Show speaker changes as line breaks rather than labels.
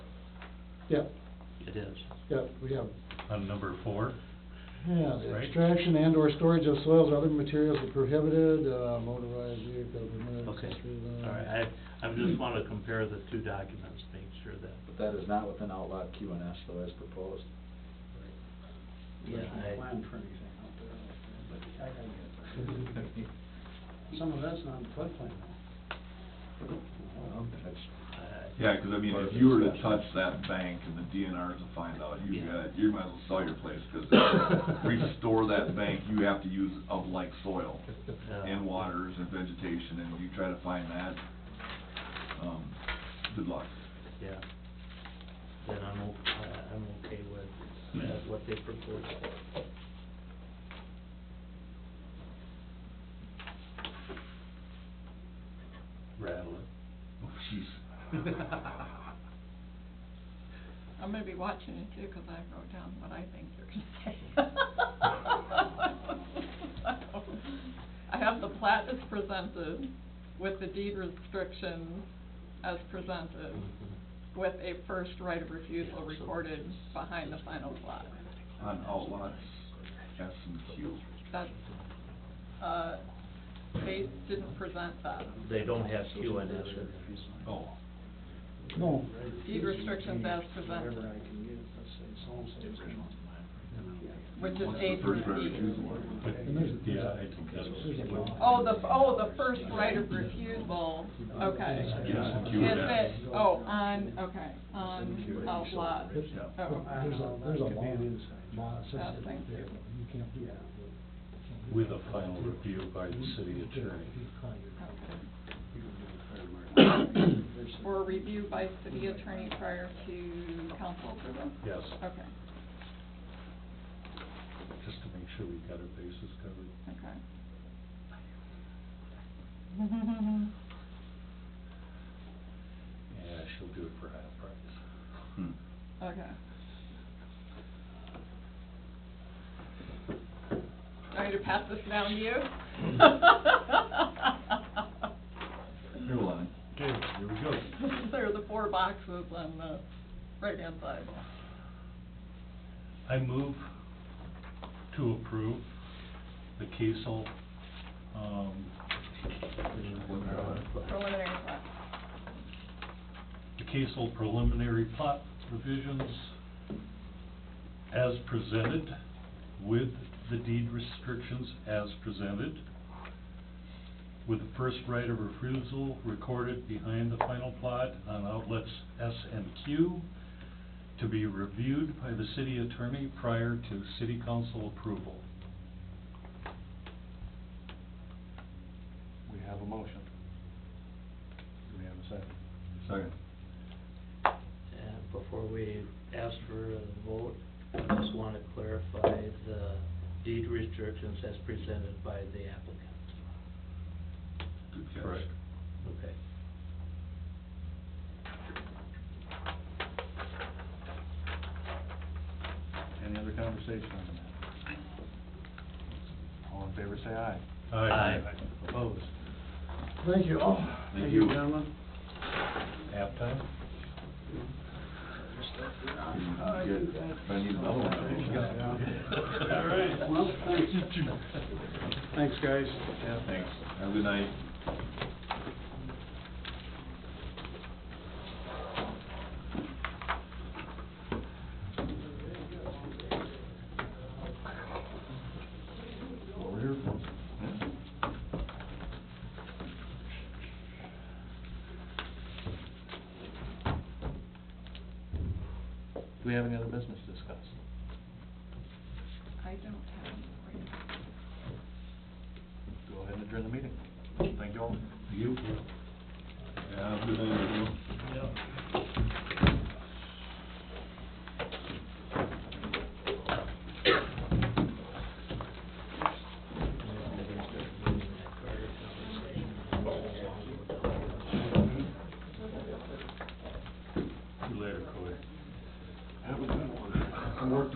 Yep,
It is.
yep, we have,
On number four,
yeah, the
Right.
extraction and or storage of soils or other materials are prohibited, uh, motorized vehicle permitted.
Okay,
accessory, uh,
all right, I, I just want to compare the two documents, make sure that, uh,
But that is not within outlot Q and S though, as proposed.
yeah,
There's no
I,
Plan for anything out there, but I gotta get it. Some of that's not in floodplain
Oh,
though.
I.
Yeah, 'cause I mean, if you were to touch that bank and the DNRs will find out, you
Yeah.
got, you might as well sell your place, 'cause restore that bank, you have to use of like soil
Yeah.
and waters and vegetation, and you try to find that, um, good luck.
Yeah. Then I'm, o- I- I'm okay with, uh what they proposed.
rattle it.
Oh, jeez.
I'm gonna be watching it too, 'cause I wrote down what I think you're gonna say. I have the plat as presented with the deed restrictions as presented with a first right of refusal recorded behind the final plat.
On outlots, S and Q.
That's, uh, they didn't present that.
They don't have Q and S in
Oh,
No,
Deed restrictions as presented.
Whatever I can get, let's say, someone says.
Which is
What's the
A
first
through
right of
D.
refusal one?
But, yeah, I think that's what.
Oh, the, oh, the first right of refusal, okay.
Yes, if you
Is
would ask.
it, oh, on, okay, on outlot,
there's,
Yeah.
oh,
there's a, there's a
Could be
law,
an inside
law that says
job.
Oh,
that
thank
there,
you.
you can't do that.
With a final review by the city attorney.
okay.
There's a-
For review by city attorney prior to council approval?
Yes,
Okay,
just to make sure we got our bases covered.
okay.
Yeah, she'll do it for half price.
Hmm.
Okay. Trying to pass this down to you?
Here, Lon.
Okay, here we go.
There are the four boxes on the right-hand side.
I move to approve the Kiesel, um,
Preliminary plat.
the Kiesel preliminary plot revisions as presented with the deed restrictions as presented, with the first right of refusal recorded behind the final plot on outlets S and Q to be reviewed by the city attorney prior to city council approval.
We have a motion. Do we have a second?
Second.
Uh, Before we ask for a vote, I just want to clarify the deed restrictions as presented by the applicant.
Good catch.
Correct.
Okay.
Any other conversation on the matter? All in favor, say aye.
Aye.
Opposed?
Thank you all.
Thank you.
Gentlemen.
Half time?
Good. If I need another one, I'll go.
All right.
Well, thanks. Thanks, guys.
Yeah, thanks. Have a good night. Over here for.
Do we have any other business to discuss?
I don't have any.
Go ahead and adjourn the meeting. Thank you all.
You? Yeah, have a good night. everybody.